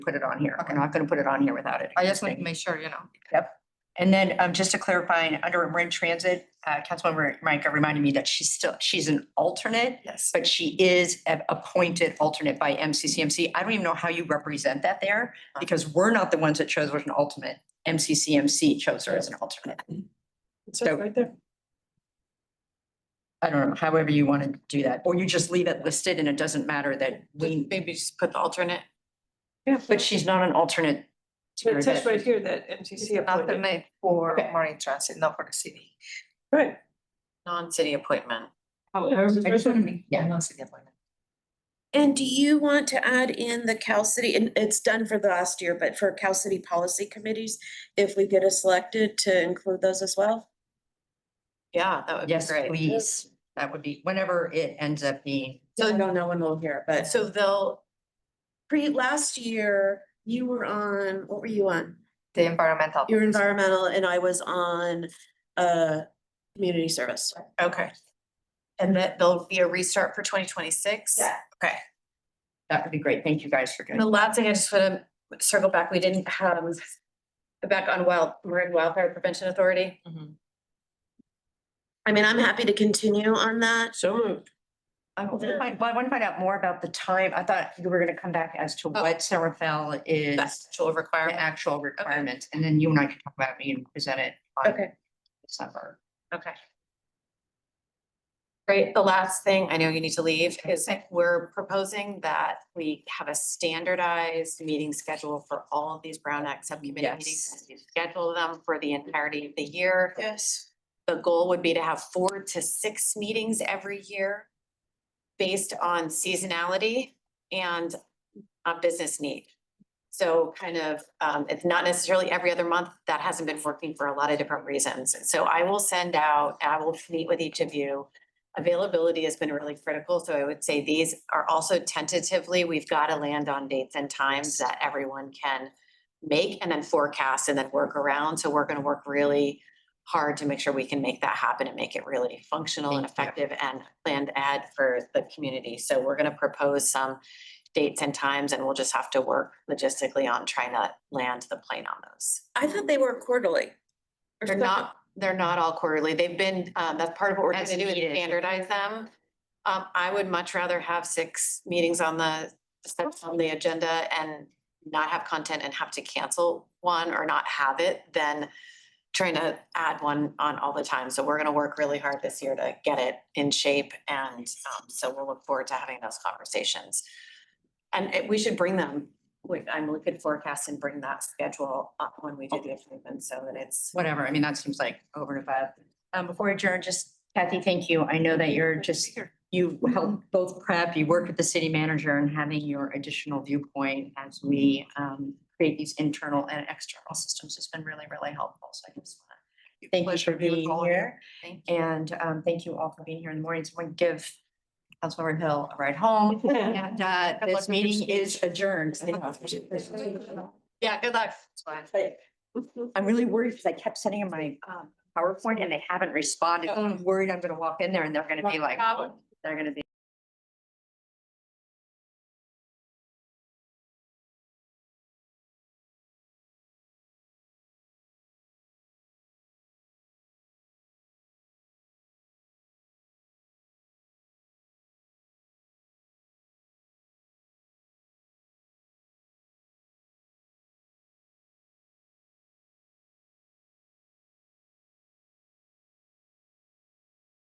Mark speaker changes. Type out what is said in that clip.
Speaker 1: put it on here.
Speaker 2: Okay.
Speaker 1: We're not gonna put it on here without it.
Speaker 2: I just want to make sure, you know.
Speaker 1: And then, um, just to clarify, under we're in transit, uh, Councilmember Micah reminded me that she's still, she's an alternate,
Speaker 2: Yes.
Speaker 1: but she is a- appointed alternate by MCCMC. I don't even know how you represent that there because we're not the ones that chose her as an alternate. MCCMC chose her as an alternate. So-
Speaker 3: right there.
Speaker 1: I don't know, however you want to do that, or you just leave it listed and it doesn't matter that we,
Speaker 2: Maybe just put the alternate,
Speaker 3: Yeah,
Speaker 1: but she's not an alternate. to
Speaker 3: but it says
Speaker 1: that-
Speaker 3: right here that MCC appointed.
Speaker 2: alternate for
Speaker 3: Okay.
Speaker 2: Marine Transit, not for the city,
Speaker 3: Right.
Speaker 2: non-city appointment.
Speaker 3: However,
Speaker 1: I just wanna make-
Speaker 2: Yeah,
Speaker 1: Yeah.
Speaker 2: non-city appointment.
Speaker 4: And do you want to add in the Cal City, and it's done for the last year, but for Cal City policy committees, if we get us selected to include those as well?
Speaker 2: Yeah, that would be
Speaker 1: Yes,
Speaker 2: great.
Speaker 1: please. That would be, whenever it ends up being,
Speaker 4: So no, no one will hear, but so
Speaker 2: So they'll,
Speaker 4: pre, last year, you were on, what were you on?
Speaker 2: the environmental.
Speaker 4: You were environmental and I was on, uh, community service.
Speaker 2: Okay. And that there'll be a restart for twenty twenty-six?
Speaker 4: Yeah.
Speaker 2: Okay.
Speaker 1: that would be great. Thank you guys for
Speaker 2: And
Speaker 1: doing.
Speaker 2: The last thing I just want to circle back, we didn't have, back on wild, Marin Wildfire Prevention Authority.
Speaker 4: I mean, I'm happy to continue on that.
Speaker 3: so moved.
Speaker 1: I want to find, well, I want to find out more about the time. I thought you were gonna come back as to what Serafel is,
Speaker 2: Actual
Speaker 1: the
Speaker 2: requirement.
Speaker 1: actual requirements, and then you and I can talk about it and present it on
Speaker 4: Okay.
Speaker 1: December.
Speaker 2: Okay. Great. The last thing, I know you need to leave, is we're proposing that we have a standardized meeting schedule for all of these Brown Act subcommittee meetings. You Schedule them for the entirety of the year.
Speaker 4: Yes.
Speaker 2: The goal would be to have four to six meetings every year based on seasonality and uh, business need. So kind of, um, it's not necessarily every other month. That hasn't been working for a lot of different reasons. So I will send out, I will meet with each of you. Availability has been really critical, so I would say these are also tentatively, we've got to land on dates and times that everyone can make and then forecast and then work around. So we're going to work really hard to make sure we can make that happen and make it really functional and
Speaker 1: Thank
Speaker 2: effective and planned ad for the community. So we're going to propose some dates and times and we'll just have to work logistically on trying to land the plane on those.
Speaker 4: I thought they were quarterly. or
Speaker 2: They're
Speaker 4: something.
Speaker 2: not, they're not all quarterly. They've been, um, that's part of what we're
Speaker 1: As
Speaker 2: gonna do is
Speaker 1: needed.
Speaker 2: standardize them. Um, I would much rather have six meetings on the, stuff on the agenda and not have content and have to cancel one or not have it than trying to add one on all the time. So we're gonna work really hard this year to get it in shape and, um, so we'll look forward to having those conversations. And it- we should bring them, we, I'm looking forecast and bring that schedule up when we do the appointment so that it's
Speaker 1: Whatever, I mean, that seems like over and above. Um, before we adjourn, just Kathy, thank you. I know that you're just, you help both prep, you work with the city manager and having your additional viewpoint as we um create these internal and external systems has been really, really helpful. So I just want to thank you for
Speaker 2: Pleasure to be with
Speaker 1: being
Speaker 2: all of you.
Speaker 1: here.
Speaker 2: Thank you.
Speaker 1: And um, thank you all for being here in the morning. Someone give Councilmember Hill a ride home. And uh,
Speaker 2: Good luck
Speaker 1: this
Speaker 2: with your
Speaker 1: meeting is adjourned.
Speaker 2: Yeah, good luck.
Speaker 1: I'm really worried because I kept sending him my um PowerPoint and they haven't responded. I'm worried I'm gonna walk in there and they're gonna be like, they're gonna be.